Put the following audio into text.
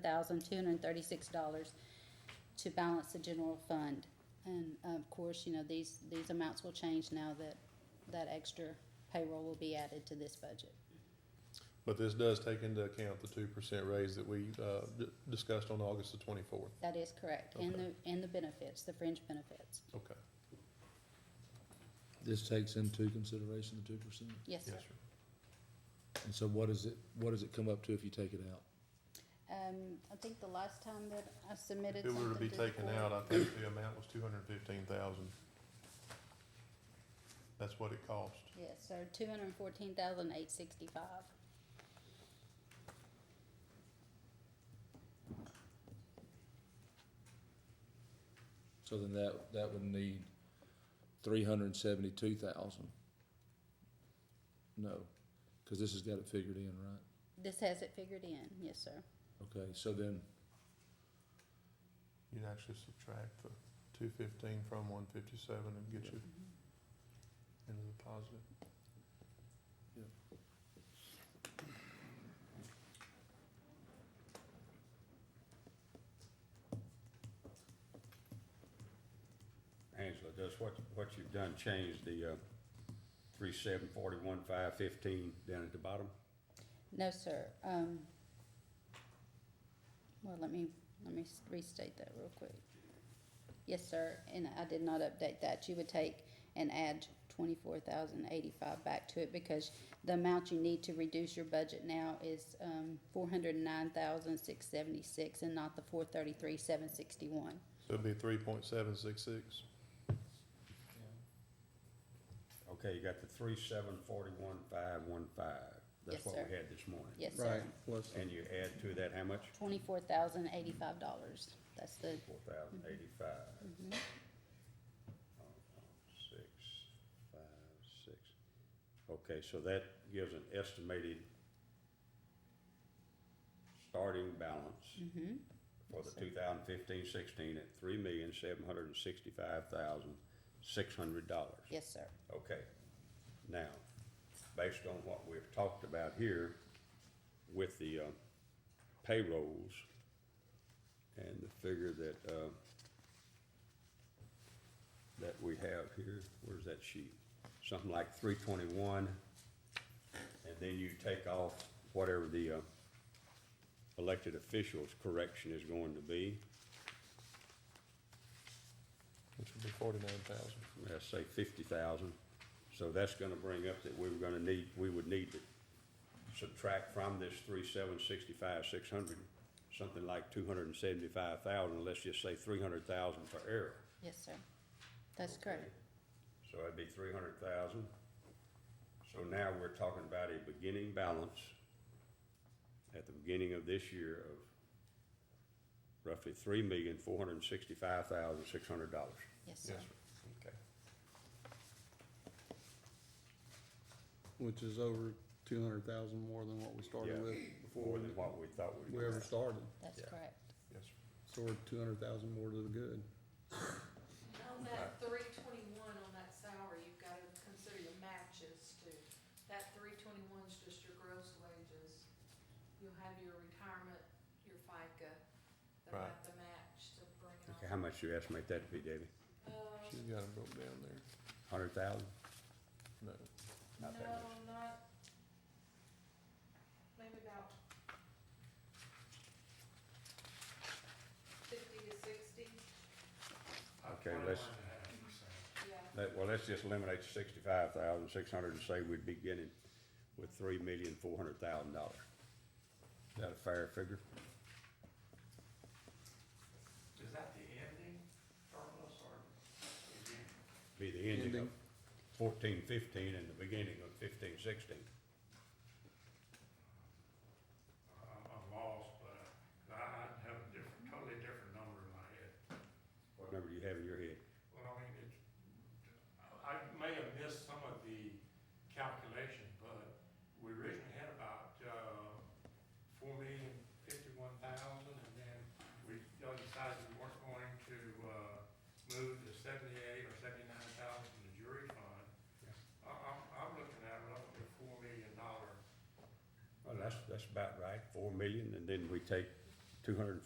thousand two hundred and thirty-six dollars to balance the general fund. And of course, you know, these, these amounts will change now that, that extra payroll will be added to this budget. But this does take into account the two percent raise that we, uh, d- discussed on August the twenty-fourth. That is correct, and the, and the benefits, the fringe benefits. Okay. This takes into consideration the two percent, Yes, sir. and so what is it, what does it come up to if you take it out? Um, I think the last time that I submitted If it something were to be to the taken board- out, I think the amount was two hundred and fifteen thousand. That's what it cost. Yes, sir, two hundred and fourteen thousand eight sixty-five. So then that, that would need three hundred and seventy-two thousand. No, cause this has got it figured in, right? This has it figured in, yes, sir. Okay, so then, You'd actually subtract the two fifteen from one fifty-seven and get you into the positive. Angela, does what, what you've done change the, uh, three seven forty-one five fifteen down at the bottom? No, sir, um, well, let me, let me s- restate that real quick. Yes, sir, and I did not update that, you would take and add twenty-four thousand eighty-five back to it, because the amount you need to reduce your budget now is, um, four hundred and nine thousand six seventy-six, and not the four thirty-three seven sixty-one. So it'd be three point seven six six. Okay, you got the three seven forty-one five one five. Yes, That's what sir. we had this morning. Yes, sir. plus, And you add to that how much? Twenty-four thousand eighty-five dollars, that's the, Four thousand eighty-five, Uh, mhm. six, five, six. Okay, so that gives an estimated starting balance Mhm. for the Yes, sir. 2015-16 at three million, seven hundred and sixty-five thousand, six hundred dollars. yes, sir, Okay, now, based on what we've talked about here with the, uh, payrolls and the figure that, uh, that we have here, where's that sheet? Something like three twenty-one, and then you take off whatever the, uh, elected officials correction is going to be, Which would be forty-nine thousand. let's say fifty thousand. So that's gonna bring up that we were gonna need, we would need to subtract from this three, seven, sixty-five, six hundred, something like two hundred and seventy-five thousand, let's just say three hundred thousand for error. yes, sir, that's correct. So that'd be three hundred thousand. So now we're talking about a beginning balance at the beginning of this year of roughly three million, four hundred and sixty-five thousand, six hundred dollars. Yes, sir. Yes, Okay. Which is over two hundred thousand more than what we Yeah, started with More before than what we thought we we were. ever started. That's Yeah. correct. yes. sir. So we're two hundred thousand more to the good. On that three twenty-one on that salary, you've gotta consider your matches too. That three twenty-one's just your gross wages. You'll have your retirement, your FICA, they'll Right. have the match to bring it Okay, how on. much do you estimate that to be, David? Uh, She's got it broke down there. Hundred thousand? No, Not that no, much. not, maybe about fifty to sixty, Okay, let's, yeah. let, well, let's just eliminate sixty-five thousand, six hundred and say we'd be getting with three million, four hundred thousand dollars. Is that a fair figure? Is that the ending surplus or the beginning? Be the ending of Ending. fourteen, fifteen and the beginning of fifteen, sixteen. I'm, I'm lost, but I, I have a different, totally different number in my head. What number do you have in your head? Well, I mean, it, I may have missed some of the calculation, but we originally had about, uh, four million fifty-one thousand, and then we y'all decided we weren't going to, uh, move the seventy-eight or seventy-nine thousand to the jury fund. I, I'm, I'm looking at roughly a four million dollar Well, that's, that's about right, four million, and then we take two hundred and